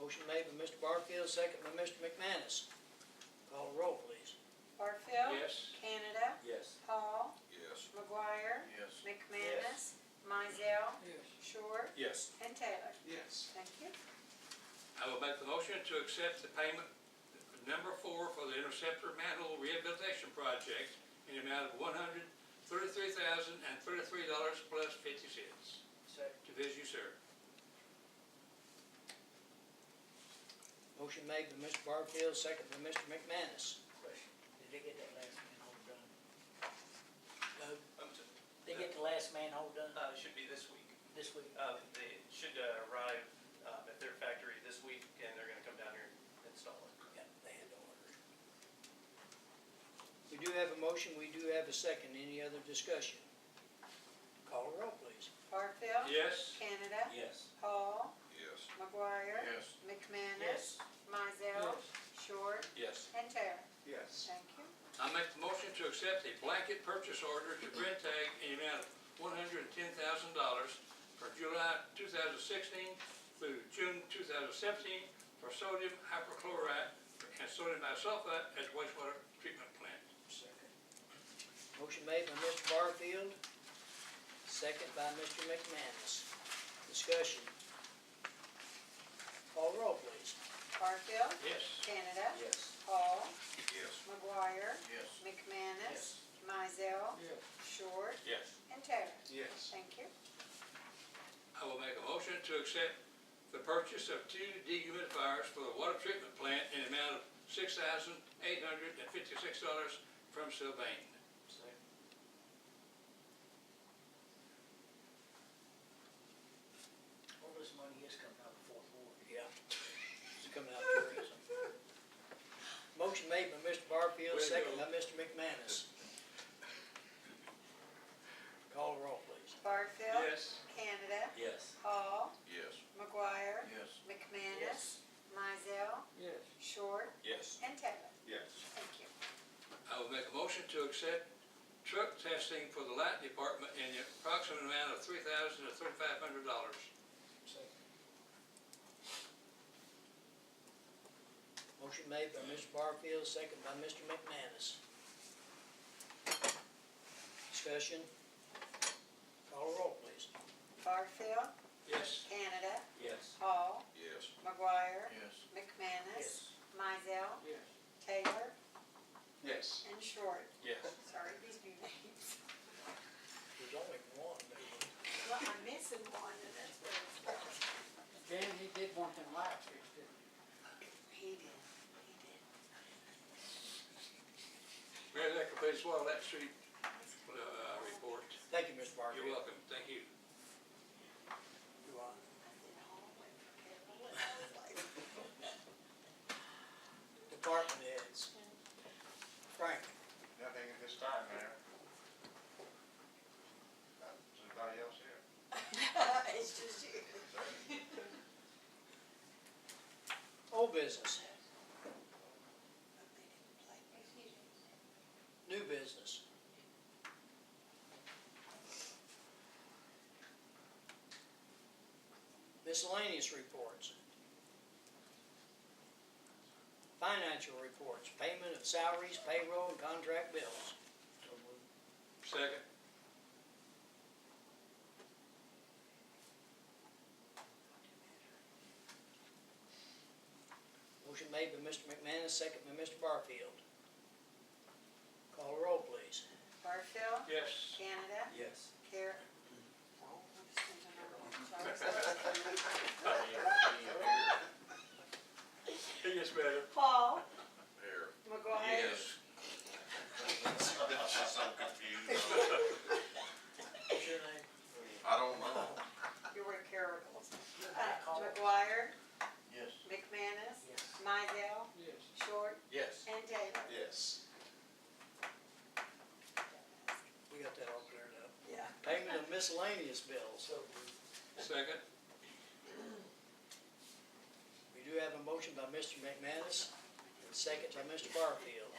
Motion made by Mr. Barfield, second by Mr. McManus. Call the roll, please. Barfield. Yes. Canada. Yes. Paul. Yes. McGuire. Yes. McManus. Mizell. Short. Yes. And Taylor. Yes. Thank you. I will make the motion to accept the payment number four for the interceptor manhole rehabilitation project in the amount of one hundred thirty-three thousand and thirty-three dollars plus fifty cents. Second. To visit you, sir. Motion made by Mr. Barfield, second by Mr. McManus. Did they get that last manhole done? Doug, Um, t- they get the last manhole done Uh, it should be this week. this week? Uh, they should uh, arrive, um, at their factory this week and they're gonna come down here and install it. Yeah, they had to order. We do have a motion, we do have a second. Any other discussion? Call the roll, please. Barfield. Yes. Canada. Yes. Paul. Yes. McGuire. Yes. McManus. Mizell. Short. Yes. And Taylor. Yes. Thank you. I make the motion to accept a blanket purchase order to Brentag in the amount of one hundred and ten thousand dollars for July two thousand sixteen through June two thousand seventeen for sodium hypochlorite and sodium bisulfite at wastewater treatment plant. Second. Motion made by Mr. Barfield, second by Mr. McManus. Discussion. Call the roll, please. Barfield. Yes. Canada. Yes. Paul. Yes. McGuire. Yes. McManus. Mizell. Yes. Short. Yes. And Taylor. Yes. Thank you. I will make a motion to accept the purchase of two dehumidifiers for the water treatment plant in the amount of six thousand eight hundred and fifty-six dollars from Sylvain. All this money is coming out of the fourth ward. Yeah. It's coming out of tourism. Motion made by Mr. Barfield, Way to second by go. Mr. McManus. Call the roll, please. Barfield. Yes. Canada. Yes. Paul. Yes. McGuire. Yes. McManus. Mizell. Yes. Short. Yes. And Taylor. Yes. Thank you. I will make a motion to accept truck testing for the light department in the approximate amount of three thousand to thirty-five hundred dollars. Motion made by Mr. Barfield, second by Mr. McManus. Discussion. Call the roll, please. Barfield. Yes. Canada. Yes. Paul. Yes. McGuire. Yes. McManus. Mizell. Yes. Taylor. Yes. And Short. Yes. Sorry, these new names. There's only one. Well, I'm missing one and that's where it's from. Dan, he did want them lights fixed, didn't he? He did. He did. Mayor, that completes Water Lake Street, uh, report. Thank you, Mr. Barfield. You're welcome. Thank you. You are. I did all the way from Carroll and I was like, Department heads. Frank, Nothing at this time, Mayor. Uh, Is anybody else here? It's just you. old business, new business. Miscellaneous reports. Financial reports, payment of salaries, payroll, and contract bills. Second. Motion made by Mr. McManus, second by Mr. Barfield. Call the roll, please. Barfield. Yes. Canada. Yes. Car. Oh, I'm just thinking another one. Sorry. It gets better. Paul. Here. McGuire. I'm so confused. What's your name? I don't know. You were Carroll. Uh, McGuire. Yes. McManus. Yes. Mydell. Yes. Short. Yes. And Taylor. Yes. We got that all cleared up. Yeah. Payment of miscellaneous bills. So, Second. We do have a motion by Mr. McManus, and second by Mr. Barfield.